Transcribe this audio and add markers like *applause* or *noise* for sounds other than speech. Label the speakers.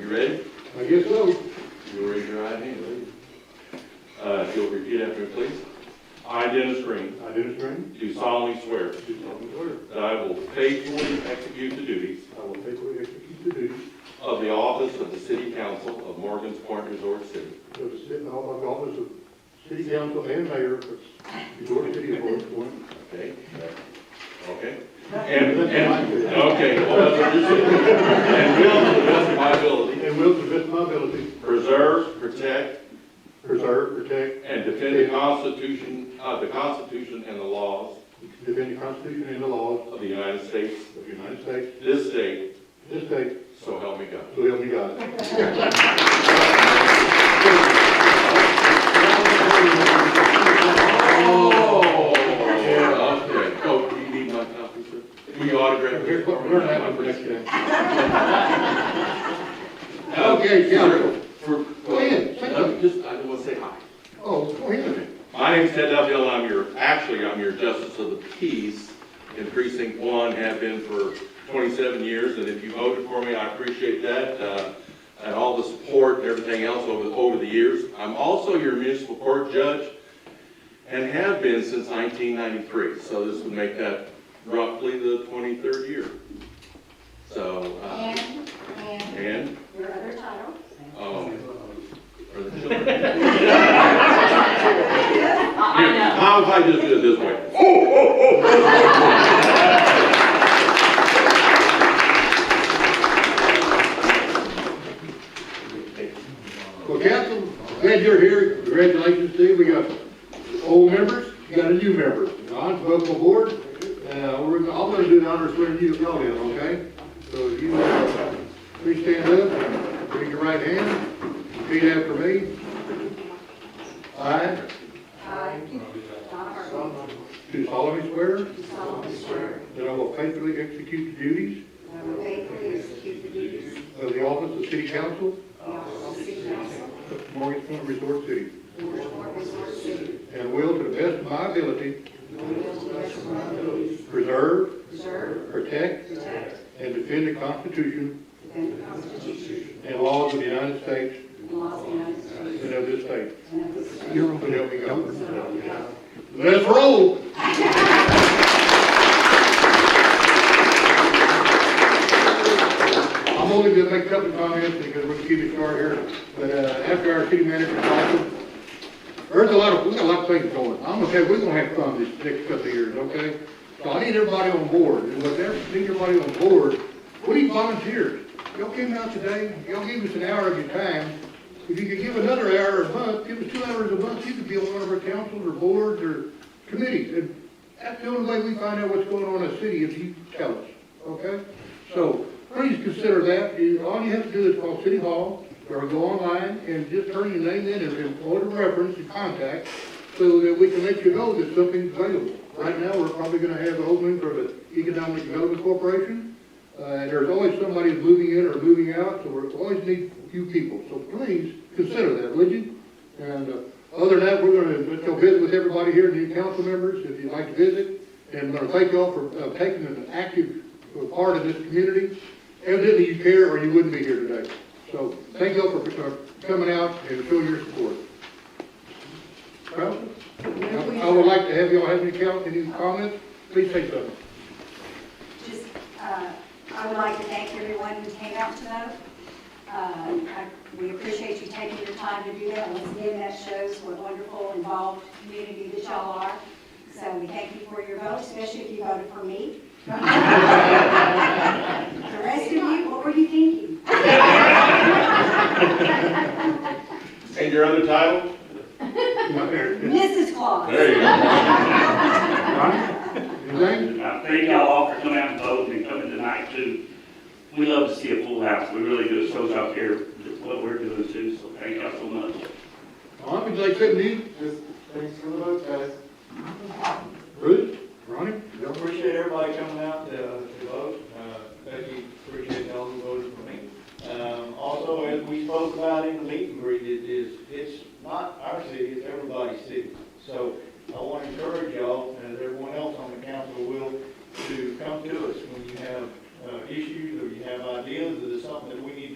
Speaker 1: You ready?
Speaker 2: I guess so.
Speaker 1: You'll raise your right hand. Uh, if you'll repeat after me, please. I, Dennis Green,
Speaker 2: I do swear.
Speaker 1: do solemnly swear
Speaker 2: Do solemnly swear.
Speaker 1: that I will faithfully execute the duties
Speaker 2: I will faithfully execute the duties
Speaker 1: of the office of the City Council of Morgan's Point Resort City
Speaker 2: of the city, of the office of city council and mayor of the Georgia City of Orange County.
Speaker 1: Okay, okay. And, and, okay, well, that's what you're saying. And will, to the best of my ability,
Speaker 2: And will to the best of my ability
Speaker 1: preserve, protect,
Speaker 2: preserve, protect,
Speaker 1: and defend the Constitution, uh, the Constitution and the laws
Speaker 2: defend the Constitution and the laws
Speaker 1: of the United States,
Speaker 2: of the United States,
Speaker 1: this state,
Speaker 2: this state,
Speaker 1: so help me God.
Speaker 2: so help me God.
Speaker 1: Oh, okay. Oh, you need my copy, sir? Will you autograph
Speaker 2: We're
Speaker 1: it?
Speaker 2: we're not having a next time.
Speaker 1: Uh,
Speaker 2: Okay, counsel.
Speaker 1: For,
Speaker 2: Go ahead, say
Speaker 1: I'm just, I want to say hi.
Speaker 2: Oh, go ahead.
Speaker 1: My name's Ted Duffield, and I'm your, actually, I'm your Justice of the Peace in Precinct One, have been for twenty-seven years, and if you voted for me, I appreciate that, uh, and all the support and everything else over, over the years. I'm also your municipal court judge, and have been since nineteen ninety-three, so this would make that roughly the twenty-third year. So, uh,
Speaker 3: And, and
Speaker 1: and,
Speaker 3: your other title?
Speaker 1: um, for the children.
Speaker 3: I know.
Speaker 1: How if I just do it this way?
Speaker 2: Well, council, glad you're here. Congratulations, Steve. We got old members, you got a new member. Ron, welcome aboard. Uh, we're, gonna- I'm gonna do the honors swearing you y'all in, okay? So if you, uh, please stand up, raise your right hand, repeat after me. I
Speaker 3: I, Donna Hartley,
Speaker 2: do solemnly swear
Speaker 3: do solemnly swear
Speaker 2: that I will faithfully execute the duties
Speaker 3: that I will faithfully execute the duties
Speaker 2: of Uh, the office of city council
Speaker 3: of the office of city council
Speaker 2: of Morgan's Point Resort City,
Speaker 3: in Bridgeport Resort City,
Speaker 2: and will to the best of my ability
Speaker 3: and will to the best of my abilities
Speaker 2: preserve,
Speaker 3: preserve,
Speaker 2: protect,
Speaker 3: protect,
Speaker 2: and defend the Constitution
Speaker 3: defend the Constitution
Speaker 2: And laws of the United States
Speaker 3: and laws of the United States
Speaker 2: and of this state.
Speaker 3: and of this state.
Speaker 2: So help me God.
Speaker 3: So help me God.
Speaker 2: Let's roll. I'm only gonna make a couple comments because we're gonna keep it short here, but, uh, after our city manager talks, there's a lot of, we got a lot of things going. I'm gonna tell you, we're gonna have fun this next couple of years, okay? So I need everybody on board, and with every, need everybody on board, we need volunteers. Y'all came out today, y'all gave us an hour of your time. If you could give another hour a month, give us two hours a month, you could be on one of our councils or boards or committees. And that's the only way we find out what's going on in the city, if you tell us, okay? So please consider that. You- All you have to do is call City Hall or go online and just turn your name in and order reference and contact so that we can let you know that something's available. Right now, we're probably gonna have an opening for the Economic Development Corporation. Uh, and there's always somebody who's moving in or moving out, so we always need a few people. So please consider that, would you? And, uh, other than that, we're gonna, let you visit with everybody here, new council members, if you'd like to visit. And I'm gonna thank y'all for, uh, taking an active uh, part of this community. Evidently you care or you wouldn't be here today. So thank y'all for, for coming out and showing your support. Well, I would like to have y'all have any count, any comments, please say something.
Speaker 3: Just, uh, I would like to thank everyone who came out to vote. Uh, I- We appreciate you taking your time to do that. Once again, that shows what wonderful involved community that y'all are. So we thank you for your vote, especially if you voted for me. *laughs* The rest of you, what were you thinking?
Speaker 1: And your other title?
Speaker 3: Mrs. Claus.
Speaker 1: There you go.
Speaker 2: Ronnie, your name?
Speaker 4: I thank y'all all for coming out and voting and coming tonight too. We love to see a full house, we really do, it shows out here what we're doing too, so thank y'all so much.
Speaker 2: Ron, would you like something new?
Speaker 5: Just thanks for the vote, guys.
Speaker 2: Bruce? Ronnie?
Speaker 5: We Appreciate everybody coming out to to vote. Uh, Becky, appreciate all who voted for me. Um, Also, as we spoke about in the meet and greet, it is, it's not our city, it's everybody's city. So I want to encourage y'all, and everyone else on the council will, to come to us when you have uh, issues or you have ideas, or there's something that we need to